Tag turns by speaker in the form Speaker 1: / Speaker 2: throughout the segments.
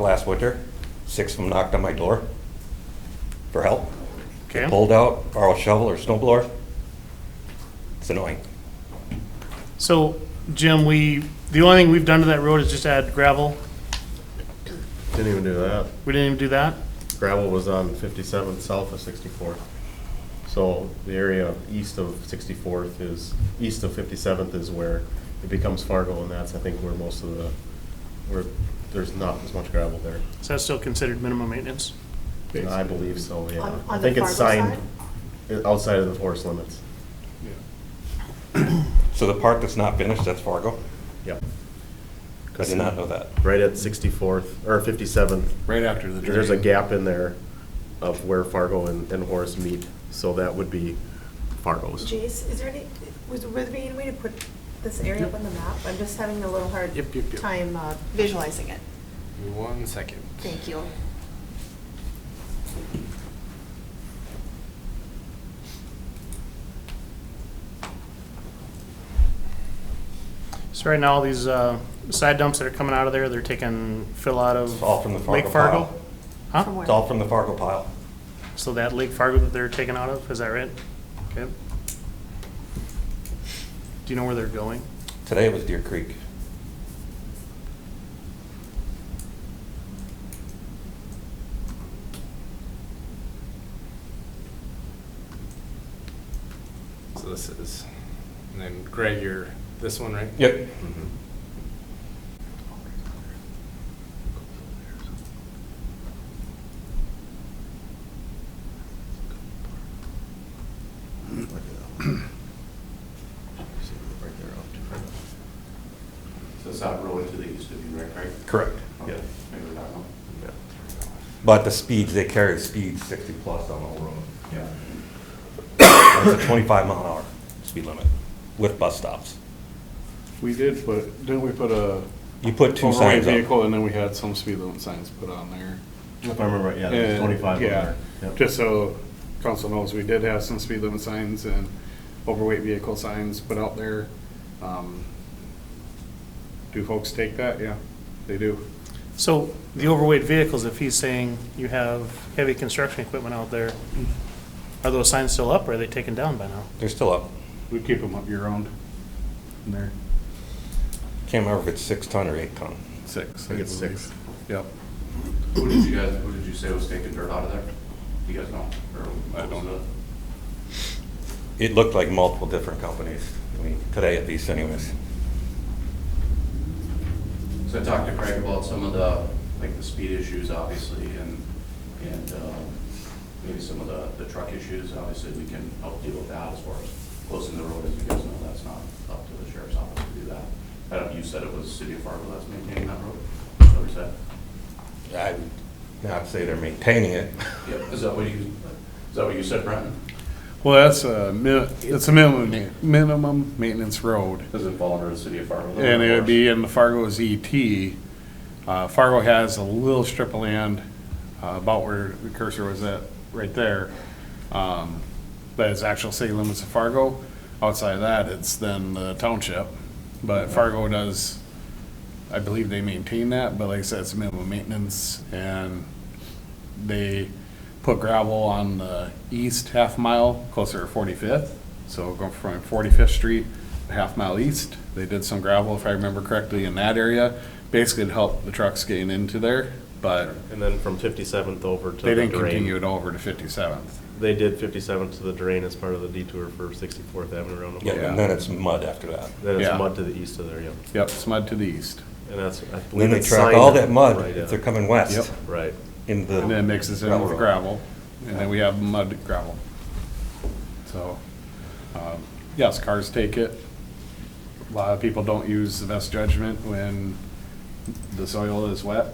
Speaker 1: last winter. Six of them knocked on my door for help.
Speaker 2: Okay.
Speaker 1: Pulled out, borrowed a shovel or snow blower. It's annoying.
Speaker 2: So, Jim, we, the only thing we've done to that road is just add gravel.
Speaker 3: Didn't even do that.
Speaker 2: We didn't even do that.
Speaker 3: Gravel was on fifty-seventh, south of sixty-fourth. So the area east of sixty-fourth is, east of fifty-seventh is where it becomes Fargo, and that's, I think, where most of the, where there's not as much gravel there.
Speaker 2: So that's still considered minimum maintenance.
Speaker 3: And I believe so, yeah.
Speaker 4: On- on
Speaker 3: I
Speaker 4: the
Speaker 3: think it's
Speaker 4: Fargo
Speaker 3: signed uh, outside of the forest limits.
Speaker 1: So the part that's not finished, that's Fargo.
Speaker 3: Yep.
Speaker 1: I did not know that.
Speaker 3: Right at sixty-fourth, or fifty-seventh,
Speaker 5: Right after the drain.
Speaker 3: There's a gap in there of where Fargo and, and Horace meet, so that would be Fargo's.
Speaker 4: Jace, is there any, was, would there be any way to put this area up on the map? I'm just having a little hard
Speaker 5: Yep, yep, yep.
Speaker 4: time uh, visualizing it.
Speaker 5: One second.
Speaker 4: Thank you.
Speaker 2: So right now, all these uh, side dumps that are coming out of there, they're taking fill out of
Speaker 1: It's all from the Fargo
Speaker 2: Lake Fargo?
Speaker 1: pile.
Speaker 4: From
Speaker 2: Huh?
Speaker 4: where?
Speaker 1: It's all from the Fargo pile.
Speaker 2: So that Lake Fargo that they're taking out of, is that right? Okay. Do you know where they're going?
Speaker 1: Today it was Deer Creek.
Speaker 5: So this is, and then Greg, you're this one, right?
Speaker 1: Yep.
Speaker 6: So South Road to the east of you, right, Craig?
Speaker 1: Correct.
Speaker 6: Okay,
Speaker 1: Yeah.
Speaker 6: Maybe that one.
Speaker 1: But the speeds, they carry speeds sixty plus on the whole road.
Speaker 6: Yeah.
Speaker 1: It's a twenty-five mile an hour speed limit with bus stops.
Speaker 7: We did put, didn't we put a
Speaker 1: You put two
Speaker 7: overweight
Speaker 1: signs up.
Speaker 7: vehicle and then we had some speed limit signs put on there?
Speaker 3: If I remember, right, yeah, there's
Speaker 7: And,
Speaker 3: twenty-five on
Speaker 7: Uh, Yeah,
Speaker 3: there. Yep.
Speaker 7: just so council knows, we did have some speed limit signs and overweight vehicle signs put out there. Um, Do folks take that? Yeah, they do.
Speaker 2: So the overweight vehicles, if he's saying you have heavy construction equipment out there, are those signs still up or are they taken down by now?
Speaker 1: They're still up.
Speaker 7: We keep them up year round in there.
Speaker 1: Can't remember if it's six ton or eight ton.
Speaker 7: Six.
Speaker 3: I think it's
Speaker 7: believe.
Speaker 3: six.
Speaker 7: Yep.
Speaker 6: Who did you guys, who did you say was taking dirt out of there? You guys know?
Speaker 7: I don't know.
Speaker 1: It looked like multiple different companies, I mean, today at least anyways.
Speaker 6: So I talked to Craig about some of the, like the speed issues, obviously, and, and uh, maybe some of the, the truck issues. Obviously, we can help deal with that as far as closing the road, as you guys know, that's not up to the sheriff's office to do that. I don't, you said it was City of Fargo that's maintaining that road? Is that what you said?
Speaker 1: I would not say they're maintaining it.
Speaker 6: Yep, is that what you, is that what you said, Brenton?
Speaker 7: Well, that's a, min- it's a minimum, minimum maintenance road.
Speaker 6: Does it fall under the City of Fargo? though,
Speaker 7: And it
Speaker 6: or-
Speaker 7: would be in the Fargo's ET. Uh, Fargo has a little strip of land uh, about where the cursor was at, right there. um, That is actual city limits of Fargo. Outside of that, it's then the township. But Fargo does, I believe they maintain that, but like I said, it's minimum maintenance. And they put gravel on the east half mile closer to 45th. So going from 45th Street, a half mile east, they did some gravel, if I remember correctly, in that area. Basically to help the trucks getting into there, but
Speaker 3: And then from fifty-seventh over to
Speaker 7: they
Speaker 3: the
Speaker 7: didn't continue
Speaker 3: drain.
Speaker 7: it over to 57th.
Speaker 3: They did fifty-seventh to the drain as part of the detour for sixty-fourth Avenue
Speaker 1: Yeah,
Speaker 3: Roundabout.
Speaker 7: Yeah.
Speaker 1: and then it's mud after that.
Speaker 3: Then it's
Speaker 7: Yeah.
Speaker 3: mud to the east of there, yep.
Speaker 7: Yep, smud to the east.
Speaker 3: And that's, I believe
Speaker 1: Then they
Speaker 3: it's
Speaker 1: track
Speaker 3: signed.
Speaker 1: all that mud,
Speaker 3: right,
Speaker 1: if
Speaker 3: yeah.
Speaker 1: they're coming west,
Speaker 7: Yep.
Speaker 3: Right.
Speaker 1: in the.
Speaker 7: And then mixes in with
Speaker 1: Railroad.
Speaker 7: gravel, and then we have mud gravel. So, um, yes, cars take it. A lot of people don't use the best judgment when the soil is wet,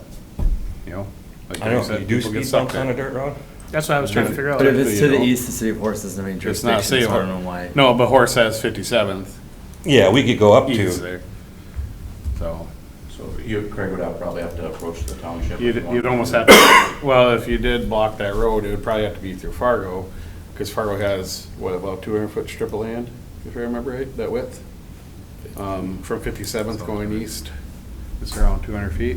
Speaker 7: you know? like
Speaker 1: I don't know,
Speaker 7: said,
Speaker 1: you do
Speaker 7: people get
Speaker 1: speed
Speaker 7: stuck
Speaker 1: bumps on
Speaker 7: there.
Speaker 1: a dirt road?
Speaker 2: That's what I was trying to figure out.
Speaker 8: But if it's to the
Speaker 7: Typically, you
Speaker 8: east, the city of Horace doesn't have any
Speaker 7: It's not
Speaker 8: jurisdiction,
Speaker 7: city.
Speaker 8: so I don't know why.
Speaker 7: No, but Horace has fifty-seventh,
Speaker 1: Yeah, we could go up
Speaker 7: east
Speaker 1: to,
Speaker 7: there. So,
Speaker 6: So you, Craig would have- probably have to approach the township.
Speaker 7: you'd,
Speaker 6: if you
Speaker 7: you'd
Speaker 6: want.
Speaker 7: almost have to, well, if you did block that road, it would probably have to be through Fargo, because Fargo has, what, about two hundred foot strip of land, if I remember right, that width? Um, from fifty-seventh going east, it's around two hundred feet.